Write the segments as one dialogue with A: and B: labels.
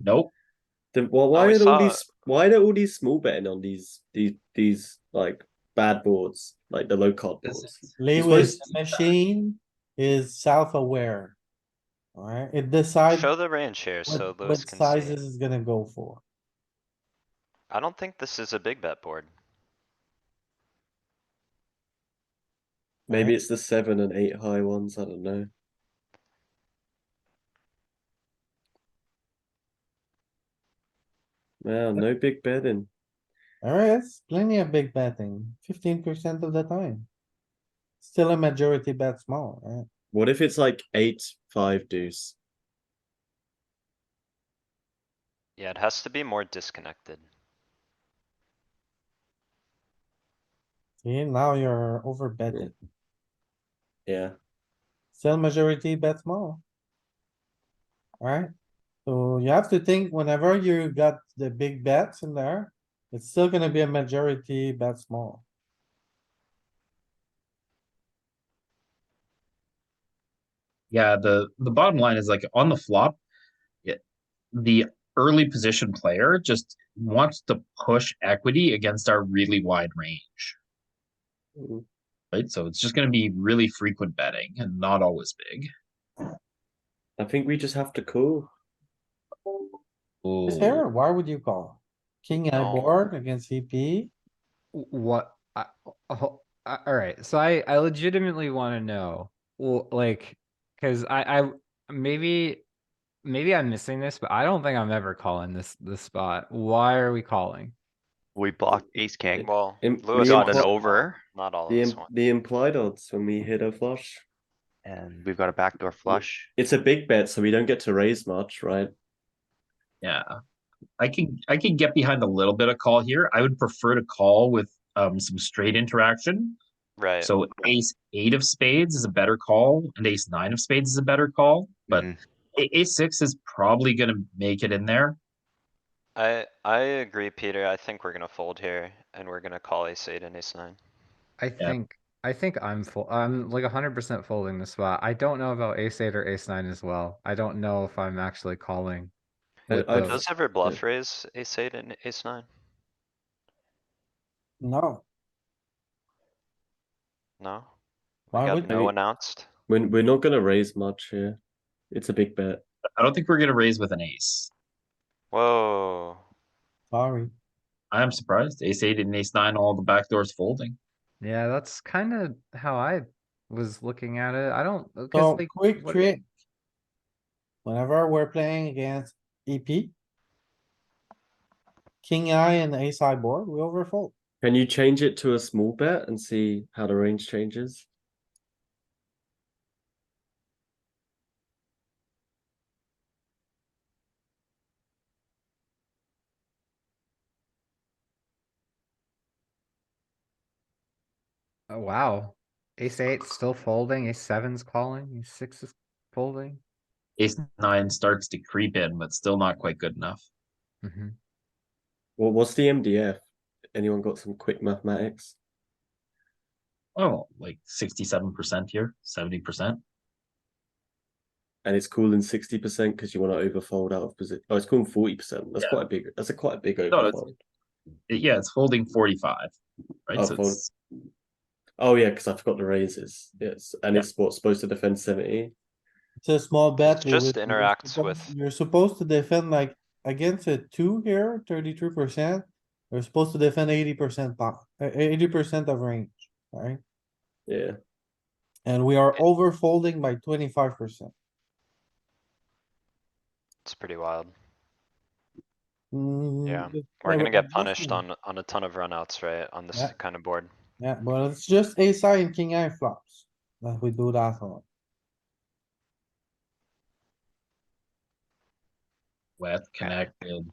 A: Nope.
B: Then why why
C: we
B: are all
C: saw
B: these why are all these small betting on these these these like bad boards like the low card
C: This
B: boards?
C: is,
D: Lewis
B: supposed-
D: the machine is self-aware. Alright, it decides
C: show the range here so
D: what, what
C: Lewis can see.
D: sizes it's gonna go for.
C: I don't think this is a big bet board.
B: Maybe it's the seven and eight high ones. I don't know. Wow, no big betting.
D: Alright, it's plenty of big betting, fifteen percent of the time. Still a majority bet small, right?
B: What if it's like eight five deuce?
C: Yeah, it has to be more disconnected.
D: See, now you're over betting,
B: Yeah,
D: still majority bet small. Alright, so you have to think whenever you got the big bets in there, it's still gonna be a majority bet small.
A: Yeah, the the bottom line is like on the flop, it, the early position player just wants to push equity against our really wide range,
D: Mm-hmm.
B: Mm.
A: right? So it's just going to be really frequent betting and not always big.
B: I think we just have to call.
D: Is
A: Ooh.
D: there? Why would you call? King I
C: No.
D: board against E CP?
E: W- What? I, oh, I, all right. So I, I legitimately want to know, well, like, because I, I maybe, maybe I'm missing this, but I don't think I'm ever calling this this spot. Why are we calling?
F: We blocked ace king,
C: Well,
B: Im-
C: Lewis
B: we
F: got
C: got
F: an
B: impl-
F: over,
C: not
A: Oh,
C: all of
B: The
C: this
B: im-
C: one.
B: the implied odds when we hit a flush.
F: and we've got a backdoor flush.
B: It's a big bet, so we don't get to raise much, right?
A: Yeah. I can I can get behind a little bit of call here. I would prefer to call with um some straight interaction.
C: Right.
A: So ace eight of spades is a better call, and ace nine of spades is a better call. But
F: Mhm.
C: Mm-hmm.
A: a- ace six is probably gonna make it in there.
C: I, I agree, Peter. I think we're gonna fold here and we're gonna call ace eight and ace nine.
E: I think, I think I'm full. I'm like 100% folding the spot. I don't know about ace eight or ace nine as well. I don't know if I'm actually calling.
B: I-
E: with
B: I
E: the-
B: just-
C: Does ever bluff raise ace eight and ace nine?
D: No,
C: No? We
D: why
C: got
D: would,
C: no
D: you?
C: announced?
B: We're, we're not gonna raise much here. It's a big bet.
A: I don't think we're gonna raise with an ace.
C: Whoa.
D: sorry,
A: I'm surprised. Ace eight and ace nine, all the back doors folding.
E: Yeah, that's kind of how I was looking at it. I don't. 'cause,
D: so
E: like,
D: quick
E: what-
D: trick. Whenever we're playing against EP. King I and ace I board, we overfold.
B: Can you change it to a small bet and see how the range changes?
E: Oh, wow. Ace eight's still folding, ace seven's calling, ace six is folding.
A: Ace nine starts to creep in, but still not quite good enough.
E: Mhm.
B: Well, what's the MDF? Anyone got some quick mathematics?
A: Oh, like sixty-seven percent here, seventy percent.
B: And it's calling sixty percent because you want to overfold out of position. Oh, it's calling forty percent. That's
A: Yeah.
B: quite a big. That's a quite a big
A: No, it's-
B: overfold.
A: Yeah, it's folding forty-five, right?
B: Oh,
A: so
B: fold-
A: it's
B: Oh yeah, because I forgot the raises. Yes, and
A: Yeah.
B: it's what supposed to defend seventy.
D: It's a small bet.
C: It
D: we
C: just
D: would- you're
C: interacts
D: supposed-
C: with-
D: You're supposed to defend like against a two here, thirty-three percent. You're supposed to defend eighty percent, eighty percent of range, right?
B: Yeah,
D: And we
C: Eh.
D: are overfolding by twenty-five percent.
C: It's pretty wild.
D: Mm, but-
C: We're
D: yeah,
C: gonna
D: but
C: get
D: this
C: punished
D: one-
C: on, on a ton of runouts, right? On this
D: Yeah.
C: kind of board.
D: Yeah, but it's just ace high and king eye flops that we do that on.
A: wet connected,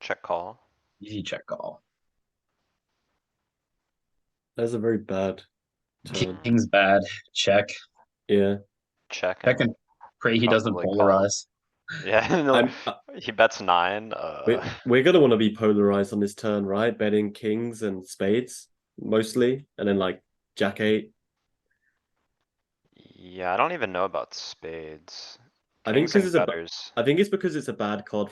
C: Check call.
A: easy check call.
B: that's a very bad. Turn.
A: King's bad. Check.
B: Yeah,
C: Check.
A: Check and pray he doesn't
C: Probably call.
A: polarize.
C: Yeah,
B: I'm, uh,
C: no, he bets nine, uh,
B: we, we're gonna want to be polarized on this turn, right? Betting kings and spades mostly, and then like jack eight.
C: yeah, I don't even know about spades.
B: I think
C: Kings
B: this
C: and
B: is a.
C: gutters.
B: I think it's because it's a bad card